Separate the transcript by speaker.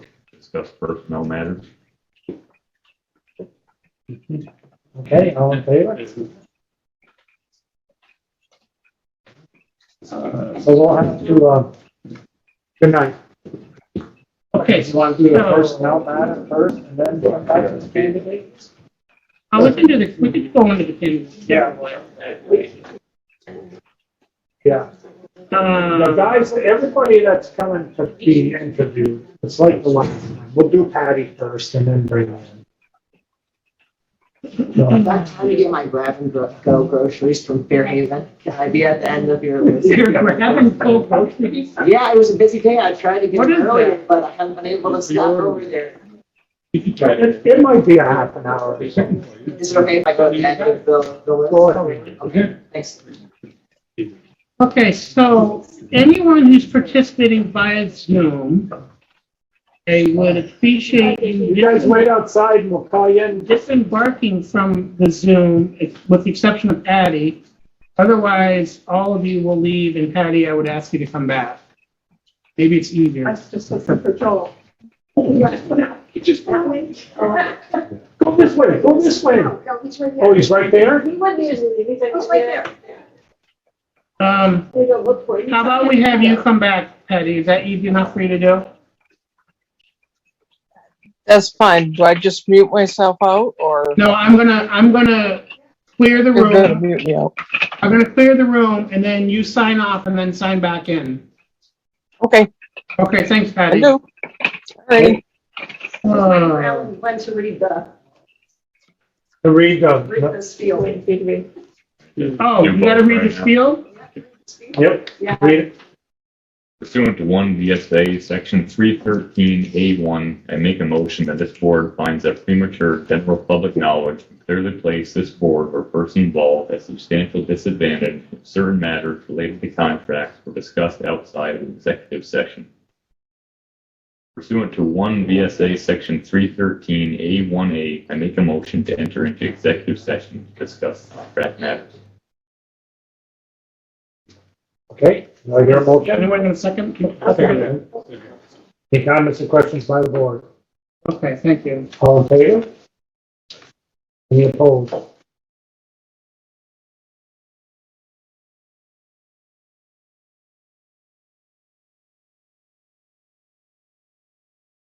Speaker 1: discuss personnel matters.
Speaker 2: Okay, all in favor? Uh, So we'll have to, uh, good night. Okay, so want to do the
Speaker 3: so-
Speaker 2: personnel matter first and then come back to the candidates?
Speaker 3: Uh, we can do the, we can go into the candidates.
Speaker 2: Yeah.
Speaker 3: Uh,
Speaker 2: Yeah, the
Speaker 3: Um,
Speaker 2: guys, everybody that's coming to be interviewed, it's like the last time, we'll do Patty first and then bring them in. So-
Speaker 4: If I'm trying to get my grab and gro- go groceries from Fairhaven, can I be at the end of your list?
Speaker 3: we're having full groceries.
Speaker 4: Yeah, it was a busy day. I tried to get
Speaker 3: What is
Speaker 4: there earlier,
Speaker 3: that?
Speaker 4: but I haven't been able to stop over there.
Speaker 2: It, it might be a half an hour or something.
Speaker 4: Is it okay if I go to the end of the, the
Speaker 2: Go
Speaker 4: list?
Speaker 2: ahead.
Speaker 4: Okay, thanks.
Speaker 3: Okay, so anyone who's participating via Zoom, I would appreciate you.
Speaker 2: You guys wait outside and we'll call you in.
Speaker 3: disembarking from the Zoom, with the exception of Patty. Otherwise, all of you will leave, and Patty, I would ask you to come back. Maybe it's easier.
Speaker 5: That's just listen for Joel. He just went out.
Speaker 2: Go this way, go this way.
Speaker 5: No, no, he's right
Speaker 2: Oh,
Speaker 5: there.
Speaker 2: he's right there?
Speaker 5: He wasn't using it, he's like,
Speaker 6: He's right there.
Speaker 3: Um,
Speaker 5: They don't look for it.
Speaker 3: how about we have you come back, Patty? Is that easy enough for you to do?
Speaker 7: That's fine. Do I just mute myself out or?
Speaker 3: No, I'm gonna, I'm gonna clear the
Speaker 7: You're gonna
Speaker 3: room.
Speaker 7: mute me out.
Speaker 3: I'm gonna clear the room, and then you sign off and then sign back in.
Speaker 7: Okay,
Speaker 3: Okay, thanks,
Speaker 7: I
Speaker 3: Patty.
Speaker 7: do. All right.
Speaker 3: Uh,
Speaker 6: Alan went to read the,
Speaker 2: To read uh,
Speaker 6: read
Speaker 2: the,
Speaker 6: this field.
Speaker 5: Wait, wait, wait.
Speaker 3: Oh, you gotta read the spiel?
Speaker 2: yep,
Speaker 6: Yeah.
Speaker 2: read it.
Speaker 1: Pursuant to one VSA, section three thirteen A one, I make a motion that this board finds that premature general public knowledge would clearly place this board or person involved at substantial disadvantage if certain matters related to contracts were discussed outside of executive session. Pursuant to one VSA, section three thirteen A one A, I make a motion to enter into executive session to discuss contract matters.
Speaker 2: Okay, now your motion.
Speaker 3: Anyone gonna second?
Speaker 2: Any comments or questions by the board?
Speaker 3: Okay, thank you.
Speaker 2: All in favor? Any opposed?